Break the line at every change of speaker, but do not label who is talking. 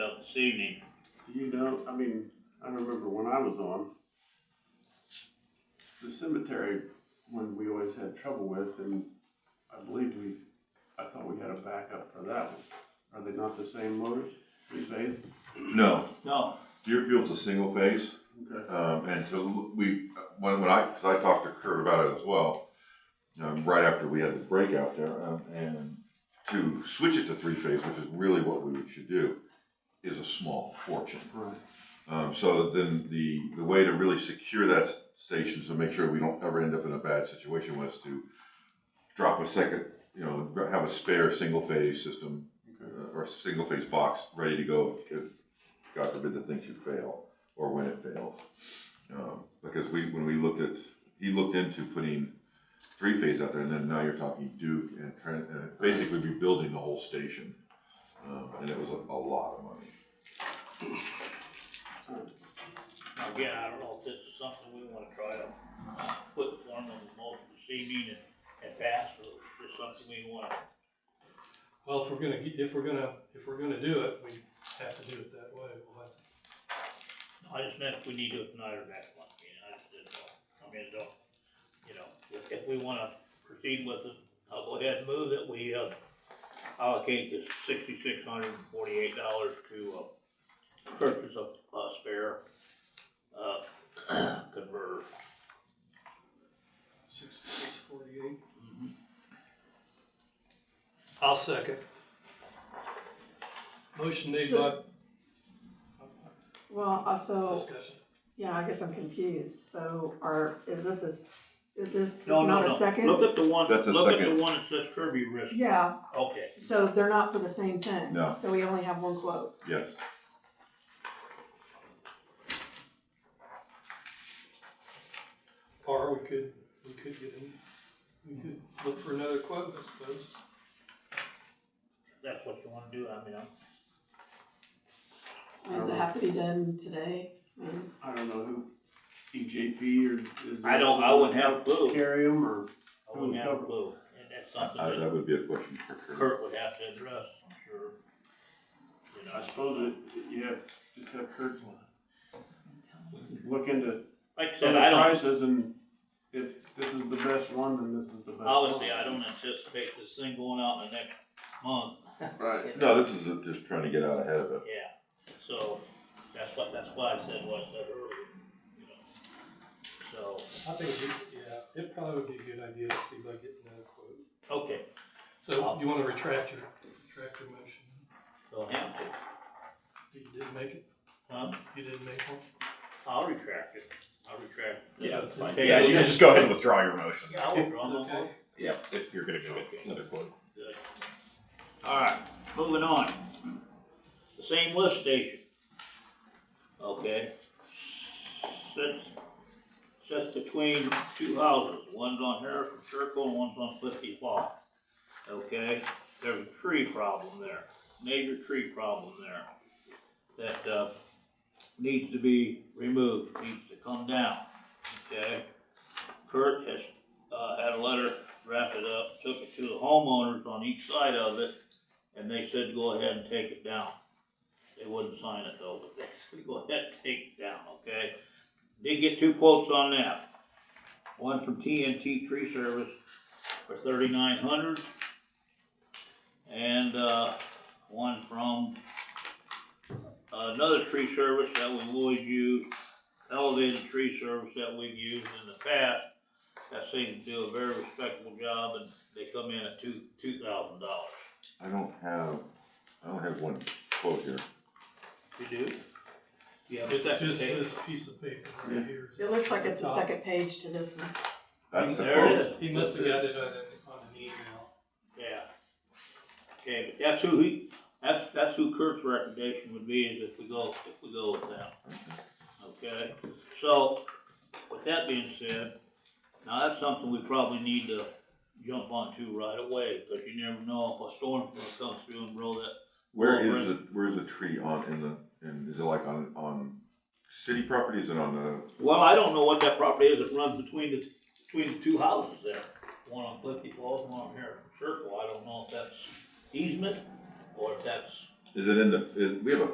this evening.
You know, I mean, I remember when I was on, the cemetery one we always had trouble with, and I believe we, I thought we had a backup for that one. Are they not the same motors, three phase?
No,
No,
Deerfield's a single phase,
Okay.
um, and to, we, when, when I, cause I talked to Kurt about it as well, um, right after we had the break out there, um, and to switch it to three phase, which is really what we should do, is a small fortune.
Right.
Um, so then the, the way to really secure that s- station, so make sure we don't ever end up in a bad situation, was to drop a second, you know, have a spare single phase system
Okay.
uh, or single phase box ready to go if, God forbid, the thing should fail or when it fails. Um, Because we, when we looked at, he looked into putting three phase out there and then now you're talking Duke and Trent, and basically rebuilding the whole station. Um, And it was a a lot of money.
Now, again, I don't know if this is something we wanna try to put in form of a motion this evening and, and pass, or is this something we wanna,
Well, if we're gonna, get- if we're gonna, if we're gonna do it, we have to do it that way. We'll have to-
I just meant if we need to do it tonight or next month, you know, I just didn't know. I mean, I don't, you know, if, if we wanna proceed with it, I'll go ahead and move that we, uh, allocate this sixty-six hundred and forty-eight dollars to, uh, purchase a, a spare, uh, converter.
Sixty-six forty-eight.
Mm-hmm.
I'll second. Motion made by,
So- Well, also,
discussion.
yeah, I guess I'm confused, so are, is this a, s- is this is
No, no,
not a
no.
second?
Look at the one,
That's a
look at the
second.
one that says Kirby Risk,
Yeah,
okay.
so they're not for the same thing?
No.
So we only have one quote?
Yes.
Or we could, we could get, him- we could look for another quote, I suppose.
that's what you wanna do, I mean, I'm,
Does it have to be done today? I mean,
I don't know who, EJP or is.
I don't, I wouldn't have a clue,
Carry them or,
I wouldn't have a clue, and that's
I-
something
That would be a question for
that
Kurt.
Kurt would have to address, I'm sure. You
I
know,
suppose it, yeah, just have Kurt's one. Look into
like I said,
other
I don't,
prices and if this is the best one, then this is the best.
obviously,
one.
I don't anticipate this thing going out in the next month,
Right.
No, this is just trying to get out ahead of it.
yeah, so, that's what, that's why I said what I said earlier, you know. So,
I think, we- yeah, it probably would be a good idea to see by getting another quote.
okay,
So you wanna retract your, retract your motion?
so Hampton,
You didn't make it?
huh,
You didn't make one?
I'll retract it, I'll retract. it.
Yeah,
that's fine.
Okay,
Yeah, you
I'll-
can just go ahead and withdraw your motion.
Yeah, I withdraw
It's
my
okay.
motion.
Yeah, if you're gonna go with another quote.
Good. All right, moving on. The same lift station. Okay. Sits, sits between two houses, one's on Harrison Circle and one's on Clifty Fall. Okay, there's a tree problem there, major tree problem there that, uh, needs to be removed, needs to come down, okay? Kurt has, uh, had a letter wrapped it up, took it to the homeowners on each side of it, and they said, go ahead and take it down. They wouldn't sign it though, but they said, go ahead and take it down, okay? Did get two quotes on that. One from TNT Tree Service for thirty-nine hundred. And, uh, one from another tree service that we've always used, elevated tree service that we've used in the past, that seems to do a very respectable job, and they come in at two, two thousand dollars.
I don't have, I don't have one quote here.
You do? Yeah, but
It's
that's
just
okay.
this piece of paper right here.
It looks like it's the
Top.
second page to this one.
That's the
There it
quote.
is,
He must have got it on, a- on an email.
yeah. Okay, but that's who he, that's, that's who Kurt's recommendation would be, is if we go, if we go with that, okay? So, with that being said, now that's something we probably need to jump onto right away, because you never know if a storm's gonna come through and blow that.
Where is the, where is the tree on, in the, in, is it like on, on city properties and on the,
Well, I don't know what that property is that runs between the, between the two houses there, one on Cliffy Falls, one on Harrison Circle, I don't know if that's easement, or if that's
is it in the, is- we have a